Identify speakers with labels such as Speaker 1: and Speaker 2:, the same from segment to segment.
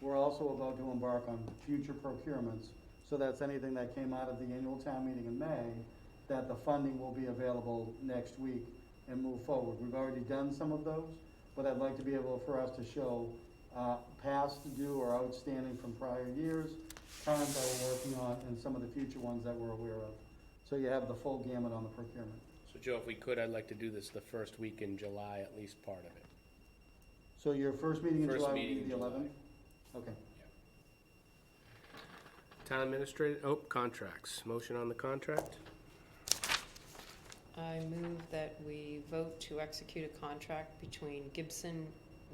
Speaker 1: We're also about to embark on future procurements, so that's anything that came out of the annual town meeting in May, that the funding will be available next week and move forward. We've already done some of those, but I'd like to be able for us to show, uh, past due or outstanding from prior years, current that we're working on, and some of the future ones that we're aware of. So you have the full gamut on the procurement.
Speaker 2: So Joe, if we could, I'd like to do this the first week in July, at least part of it.
Speaker 1: So your first meeting in
Speaker 2: First
Speaker 1: July would
Speaker 2: meeting
Speaker 1: be
Speaker 2: in
Speaker 1: the
Speaker 2: July.
Speaker 1: eleventh? Okay.
Speaker 2: Town administrator, oh, contracts. Motion on the contract?
Speaker 3: I move that we vote to execute a contract between Gibson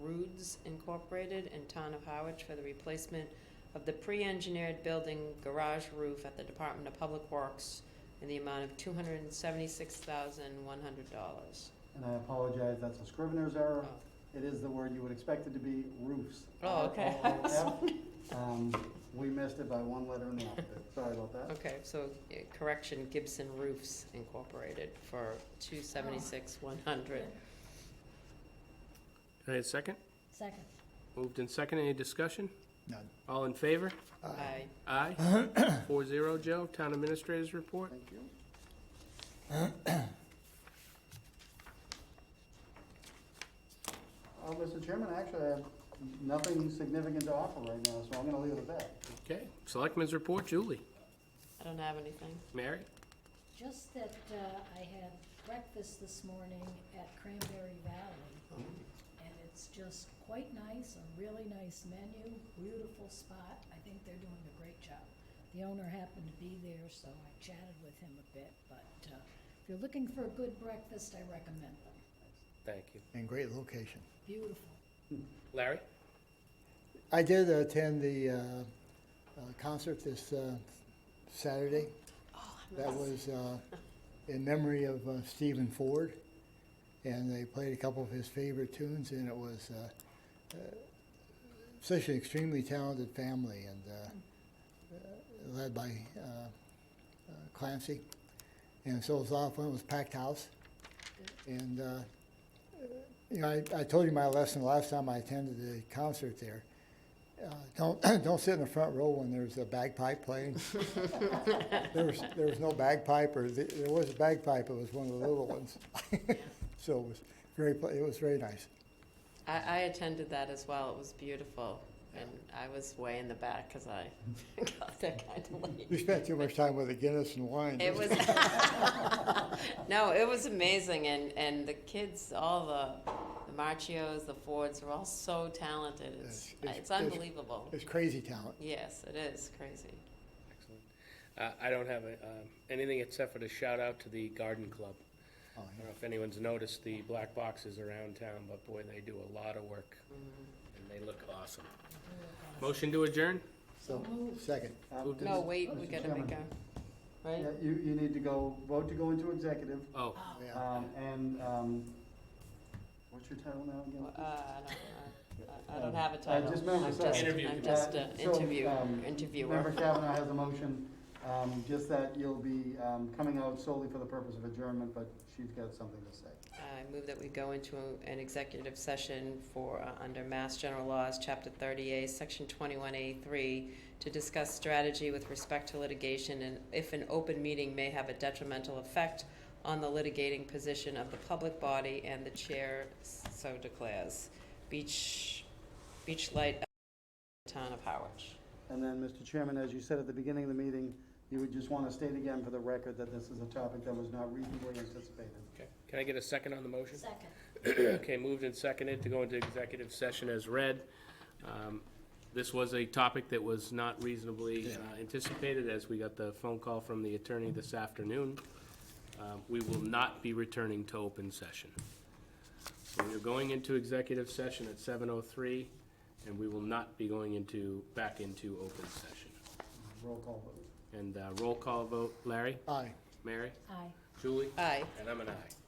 Speaker 3: Roods Incorporated and Town of Harwich for the replacement of the pre-engineered building garage roof at the Department of Public Works in the amount of two hundred and seventy-six thousand, one hundred dollars.
Speaker 1: And I apologize, that's a scrivener's error. It is the word you would expect it to be, roofs.
Speaker 3: Oh, okay. I was
Speaker 1: R O O F. Um, we missed it by one letter in the alphabet, sorry about that.
Speaker 3: Okay, so uh, correction, Gibson Roofs Incorporated for two seventy-six, one hundred.
Speaker 2: Can I have a second?
Speaker 4: Second.
Speaker 2: Moved in second. Any discussion?
Speaker 5: None.
Speaker 2: All in favor?
Speaker 3: Aye.
Speaker 2: Aye. Four zero, Joe. Town administrators report?
Speaker 1: Thank you. Uh, Mr. Chairman, actually, I have nothing significant to offer right now, so I'm gonna leave it at that.
Speaker 2: Okay. Selectmen's report, Julie.
Speaker 3: I don't have anything.
Speaker 2: Mary?
Speaker 4: Just that uh, I had breakfast this morning at Cranberry Valley, and it's just quite nice, a really nice menu, beautiful spot. I think they're doing a great job. The owner happened to be there, so I chatted with him a bit, but uh, if you're looking for a good breakfast, I recommend them.
Speaker 2: Thank you.
Speaker 5: And great location.
Speaker 4: Beautiful.
Speaker 2: Larry?
Speaker 5: I did attend the uh, uh, concert this uh, Saturday. That was uh, in memory of uh, Stephen Ford. And they played a couple of his favorite tunes, and it was uh, uh, such an extremely talented family, and uh, uh, led by uh, uh, Clancy. And so it was a lot of fun. It was a packed house. And uh, you know, I, I told you my lesson last time I attended the concert there. Uh, don't don't sit in the front row when there's a bagpipe playing. there was there was no bagpipe, or th- there was a bagpipe. It was one of the little ones. so it was very pl- it was very nice.
Speaker 3: I, I attended that as well. It was beautiful. And I was way in the back because I got there kind of
Speaker 5: We
Speaker 3: late.
Speaker 5: spent too much time with the Guinness and wine.
Speaker 3: It was, no, it was amazing. And, and the kids, all the, the Marchios, the Fords, are all so talented. It's,
Speaker 5: Yes, it's-
Speaker 3: it's
Speaker 5: it's-
Speaker 3: unbelievable.
Speaker 5: It's crazy talent.
Speaker 3: Yes, it is crazy.
Speaker 2: Excellent. Uh, I don't have a, um, anything except for to shout out to the garden club. I
Speaker 5: Oh, yeah.
Speaker 2: don't know if anyone's noticed the black boxes around town, but boy, they do a lot of work.
Speaker 5: Mm-hmm.
Speaker 2: And they look awesome. Motion to adjourn?
Speaker 5: So second.
Speaker 1: Uh,
Speaker 2: Moved in-
Speaker 3: No, wait, we
Speaker 1: Mr.
Speaker 3: gotta
Speaker 1: Chairman.
Speaker 3: make a, right?
Speaker 1: Yeah, you, you need to go, vote to go into executive,
Speaker 2: Oh,
Speaker 5: Yeah.
Speaker 1: um, and, um, what's your title now again?
Speaker 3: Uh, I don't, I, I don't have a
Speaker 1: I
Speaker 3: title.
Speaker 1: just remember,
Speaker 3: I'm
Speaker 1: sorry.
Speaker 3: just,
Speaker 2: Interview
Speaker 3: I'm just
Speaker 1: committee.
Speaker 3: an
Speaker 1: Uh, so,
Speaker 3: interview,
Speaker 1: um, Member
Speaker 3: interviewer.
Speaker 1: Kavanaugh has a motion, um, just that you'll be, um, coming out solely for the purpose of adjournment, but she's got something to say.
Speaker 3: I move that we go into an executive session for, uh, under Mass General Laws, Chapter 30A, Section 21A3, to discuss strategy with respect to litigation and if an open meeting may have a detrimental effect on the litigating position of the public body and the chair so declares. Beach, Beach Light, Town of Howard.
Speaker 1: And then, Mr. Chairman, as you said at the beginning of the meeting, you would just want to state again for the record that this is a topic that was not reasonably anticipated.
Speaker 2: okay. Can I get a second on the motion?
Speaker 4: Second.
Speaker 2: Okay, moved and seconded to go into executive session as read. Um, This was a topic that was not reasonably uh, anticipated, as we got the phone call from the attorney this afternoon. Um, We will not be returning to open session. So We're going into executive session at seven oh three, and we will not be going into, back into open session.
Speaker 1: Roll call vote.
Speaker 2: And uh, roll call vote, Larry,
Speaker 5: Aye.
Speaker 2: Mary,
Speaker 4: Aye.
Speaker 2: Julie,
Speaker 3: Aye.
Speaker 2: and I'm an aye.